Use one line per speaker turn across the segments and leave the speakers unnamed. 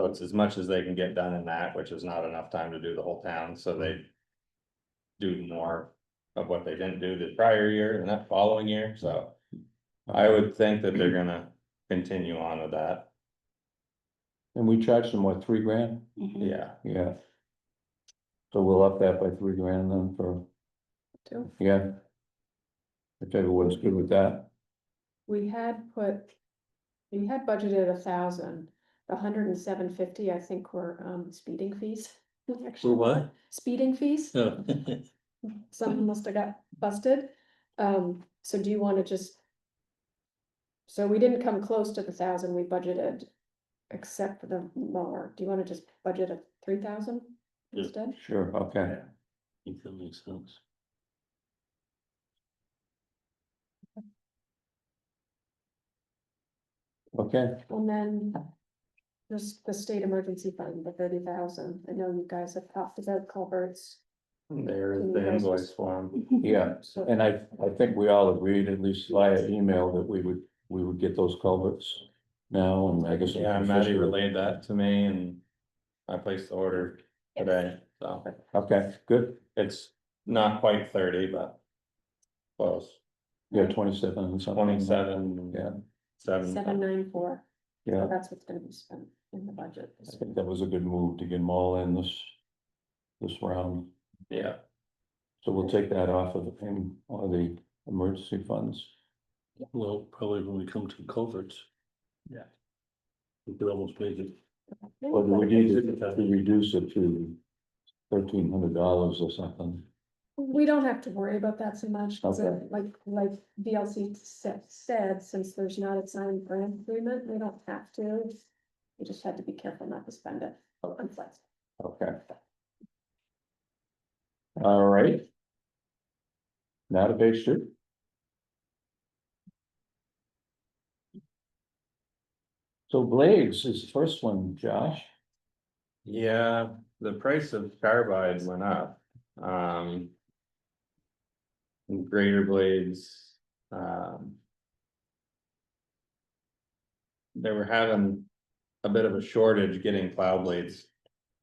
So it's as much as they can get done in that, which is not enough time to do the whole town, so they. Do more of what they didn't do the prior year and that following year, so. I would think that they're gonna continue on with that,
And we charged them, what, three grand?
yeah.
Yeah. So we'll up that by three grand then for,
Two.
yeah. If everyone's good with that,
We had put, we had budgeted a thousand, the hundred and seven fifty, I think were um speeding fees. actually.
what?
Speeding fees, something must have got busted, um, so do you wanna just? So we didn't come close to the thousand we budgeted, except for the mower, do you wanna just budget a three thousand
Yeah.
instead?
sure, okay.
think that makes sense.
Okay,
And then just the state emergency fund, the thirty thousand, I know you guys have talked about culverts.
There is the invoice form,
yeah,
So-
and I, I think we all agreed, at least via email, that we would, we would get those culverts now, and I guess. we
yeah,
can
Maddie
officially-
relayed that to me and. I placed the order today, so
Okay, good,
it's not quite thirty, but. Close,
yeah, twenty-seven and something.
twenty-seven.
Yeah.
Seven
Seven,
nine four,
Yeah,
so that's what's gonna be spent in the budget.
I think that was a good move to get them all in this, this round.
yeah,
So we'll take that off of the, em- or the emergency funds.
Well, probably when we come to culverts.
Yeah.
We could almost make it,
Or do we need to to reduce it to thirteen hundred dollars or something?
We don't have to worry about that so much, 'cause, uh,
Okay.
like, like VLC sa- said, since there's not a signed grant agreement, we don't have to. We just had to be careful not to spend it. Oh, unflex-
Okay. All right. Now to page two. So Blades is the first one, Josh.
yeah, the price of carbide went up, um. Greater blades, um. They were having a bit of a shortage getting plow blades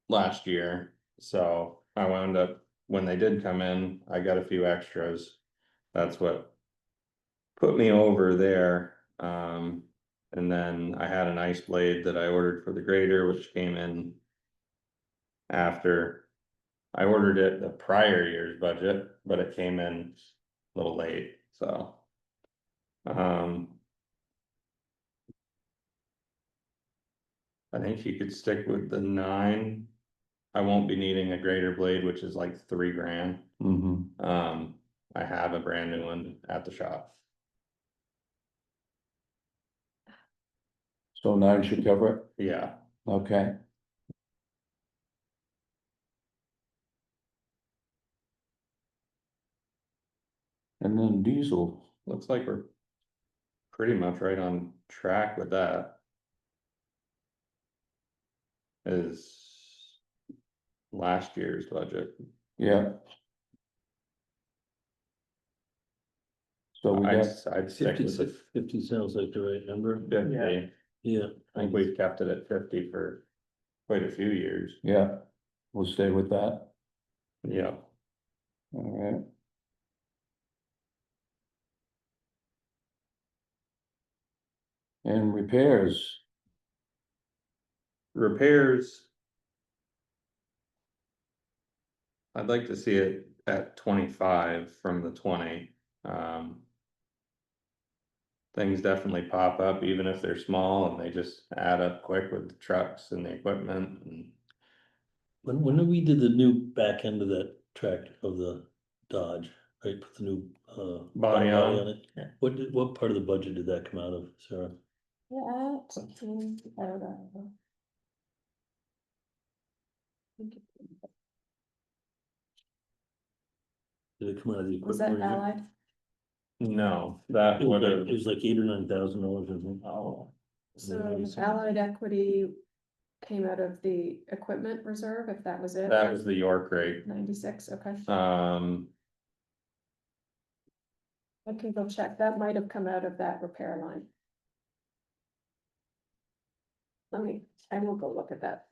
last year, so I wound up, when they did come in, I got a few extras. That's what put me over there, um, and then I had an ice blade that I ordered for the grader, which came in after I ordered it the prior year's budget, but it came in a little late, so. Um. I think you could stick with the nine. I won't be needing a grater blade, which is like three grand.
Mm-hmm.
Um, I have a brand new one at the shop.
So nine should cover it,
Yeah,
okay? And then diesel.
looks like we're pretty much right on track with that. Is last year's budget.
Yeah. So we
I'd,
got,
I'd stick
fifty
with
six,
the
fifty sounds like the right number.
fifty.
Yeah.
I think we've kept it at fifty for quite a few years.
yeah, we'll stay with that,
Yeah.
alright. And repairs,
Repairs. I'd like to see it at twenty-five from the twenty, um. Things definitely pop up, even if they're small, and they just add up quick with the trucks and the equipment and.
When, when we did the new back end of that track of the Dodge, right, put the new, uh.
Body on.
it.
Yeah.
What did, what part of the budget did that come out of, Sarah?
Yeah, something, I don't know.
Did it come out of the
Was that
equipment? or
allied?
No, that
It
would
was like- it
have,
was like eight or nine thousand dollars, I think.
oh,
So allied equity came out of the equipment reserve, if that was it?
that was the York rate,
Ninety-six, okay.
Uh,
um,
I can go check, that might have come out of that repair line. Let me, I will go look at that.